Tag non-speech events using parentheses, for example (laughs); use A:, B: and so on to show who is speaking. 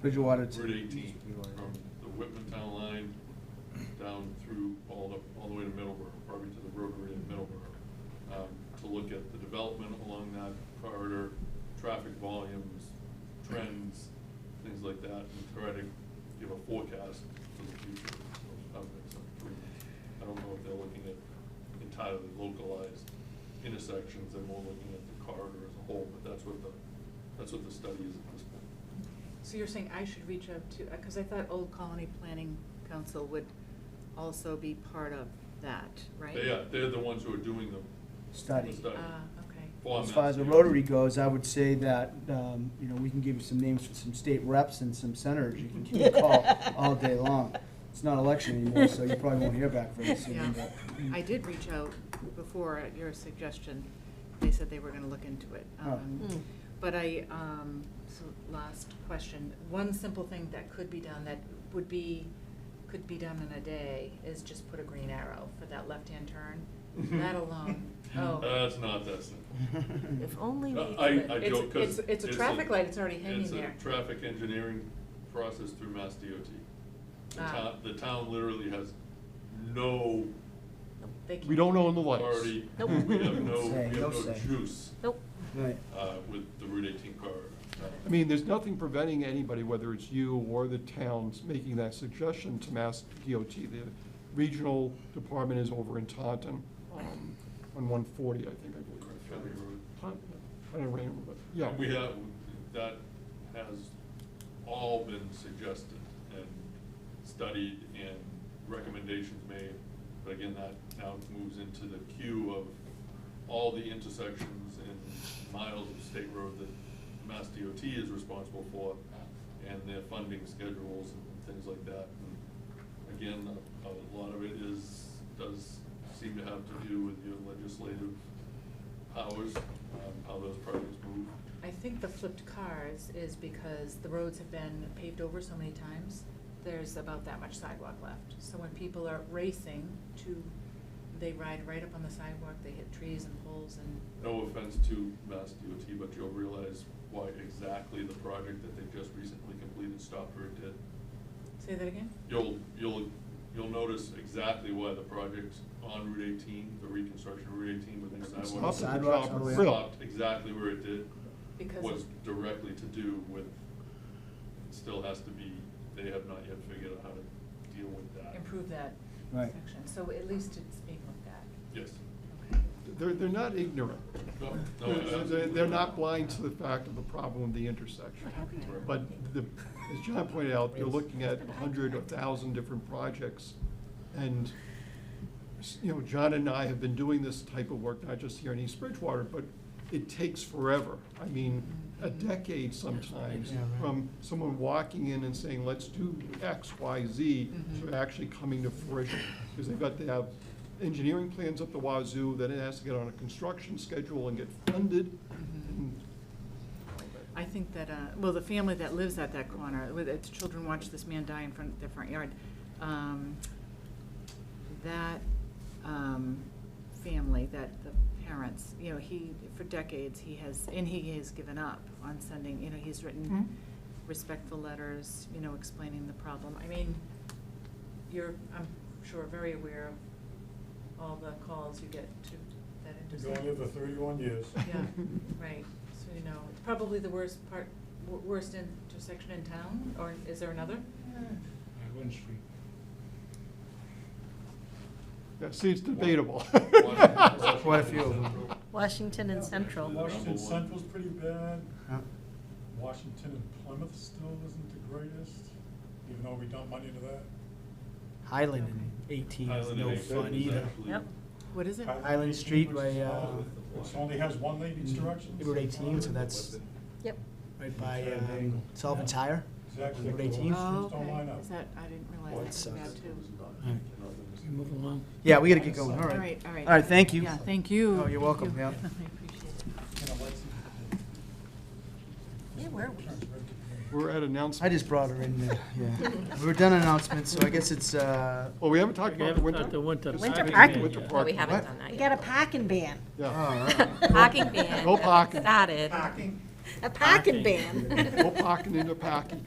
A: Bridgewater to.
B: Route eighteen,
A: Bridgewater.
B: from the Whitman Town line down through, all the, all the way to Middleborough, probably to the rotary in Middleborough, um, to look at the development along that corridor, traffic volumes, trends, things like that, and try to give a forecast for the future. of- of it. So, I don't know if they're looking at entirely localized intersections, they're more looking at the corridor as a whole, but that's what the, that's what the study is at this point.
C: So you're saying I should reach out to, because I thought Old Colony Planning Council would also be part of that, right?
B: They are, they're the ones who are doing the.
A: Study.
B: the study.
C: Ah, okay.
B: Form
A: As far
B: that
A: as the
B: study.
A: Rotary goes, I would say that, um, you know, we can give you some names for some state reps and some senators you can give a
C: (laughs)
A: call all day long. It's not election anymore, so you probably won't hear back very soon,
C: Yeah,
A: but. (laughs)
C: I did reach out before at your suggestion, they said they were gonna look into it.
A: Oh.
C: Um,
D: Mm.
C: But I, um, so last question, one simple thing that could be done that would be, could be done in a day is just put a green arrow for that
B: (laughs)
C: left-hand turn. That alone, oh.
B: Uh, That's not that simple.
A: (laughs) Mm.
B: Uh,
D: If only we
B: I,
D: could.
B: I
C: It's-
B: joke, cause.
C: it's- it's a traffic light, it's already hanging there.
B: It's a traffic engineering process through Mass DOT. The
C: Ah.
B: town, the town literally has no
C: They can-
E: We don't own the lights.
B: authority,
D: Nope.
B: we have (laughs) no, we
A: Say,
B: have
A: no
B: no
A: say.
B: juice,
D: Nope,
A: Right.
B: uh, with the Route eighteen corridor.
E: I mean, there's nothing preventing anybody, whether it's you or the towns, making that suggestion to Mass DOT. The regional department is over in Taunton, um, on one forty, I think, I believe.
B: County road.
E: Taunton, I don't remember, but, yeah.
B: And we have, that has all been suggested and studied and recommendations made. But again, that now moves into the queue of all the intersections and miles of state road that Mass DOT is responsible for and their funding schedules and things like that. And Again, a a lot of it is, does seem to have to do with your legislative powers, um, how those projects move.
C: I think the flipped cars is because the roads have been paved over so many times, there's about that much sidewalk left. So when people are racing to, they ride right up on the sidewalk, they hit trees and poles and,
B: No offense to Mass DOT, but you'll realize why exactly the project that they just recently completed stopped where it did.
C: say that again?
B: You'll, you'll, you'll notice exactly why the project on Route eighteen, the reconstruction of Route eighteen with the sidewalk.
E: Stopped at the
A: Sidewalks
E: top
A: all the way
E: of
A: up.
E: Brill.
B: Stopped exactly where it did.
C: Because
B: Was
C: of,
B: directly to do with, it still has to be, they have not yet figured out how to deal with that.
C: improve that
A: Right.
C: section, so at least it's being looked at.
B: Yes.
C: Okay.
E: They're, they're not ignorant.
B: No, no,
E: They're- They're,
B: absolutely.
E: they're not blind to the fact of the problem of the intersection. But the, as John pointed out, you're looking at a hundred, a thousand different projects. And, s- you know, John and I have been doing this type of work, not just here in East Bridgewater, but it takes forever. I mean, a decade sometimes
A: Yeah, right.
E: from someone walking in and saying, let's do X, Y, Z,
F: Mm-hmm.
E: to actually coming to fruition. Because they've got to have engineering plans up the wazoo, then it has to get on a construction schedule and get funded.
F: Mm-hmm.
E: And
C: I think that, uh, well, the family that lives at that corner, with its children watch this man die in front of their front yard, um, that um, family, that the parents, you know, he, for decades, he has, and he has given up on sending, you know, he's
E: Mhm.
C: written respectful letters, you know, explaining the problem. I mean, you're, I'm sure, very aware of all the calls you get to that
G: Been
C: intersection.
G: going there for thirty-one years.
E: (laughs)
C: Yeah, right, so you know, it's probably the worst part, wor- worst intersection in town, or is there another?
G: One street.
E: Yeah, see, it's debatable.
A: (laughs) Quite a few of them.
D: Washington and Central.
B: number
G: Washington
B: one.
G: Central's pretty bad.
A: Huh?
G: Washington and Plymouth still isn't the greatest, even though we dump money into that.
A: Highland in eighteen is
B: Highland
A: no
B: and
A: fun
B: Exeter is
A: either.
B: actually-
D: Yep.
C: What is it?
A: Island
G: Eighteen,
A: Street
G: which
A: by,
G: is
A: uh,
G: smaller, Which only has one lane each direction.
A: Route eighteen, so that's
D: Yep.
A: right by, um, Sullivan
G: Yeah.
A: Tire.
G: Exactly.
A: Route
G: The
A: eighteen.
G: streets
C: Oh,
G: don't line
C: okay,
G: up.
C: is that, I didn't
A: Well,
C: realize that was
A: it sucks.
C: bad too.
H: Move along.
A: Yeah, we gotta get going, all
C: All
A: right.
C: right, all right.
A: All right, thank you.
C: Yeah, thank you.
A: Oh, you're
C: Thank
A: welcome,
C: you.
A: yeah.
C: (laughs) I appreciate it.
G: You know, lights-
D: Yeah, where are we?
G: Turns red to green.
E: We're at announcements.
A: I just brought her in there, yeah.
C: (laughs)
A: We were done announcements, so I guess it's, uh,
E: Well, Oh, we haven't talked
H: We
E: about the
H: haven't
E: winter.
H: got the winter.
D: Winter
H: parking
D: parking.
H: ban
E: Winter
H: yet.
E: park.
F: We haven't
A: What?
F: done that
D: We
F: yet.
D: got a parking ban,
E: Yeah,
A: oh, all right.
F: Parking ban.
E: No parking.
F: Started.
D: a parking
H: Parking.
D: ban.
E: no parking in the parking.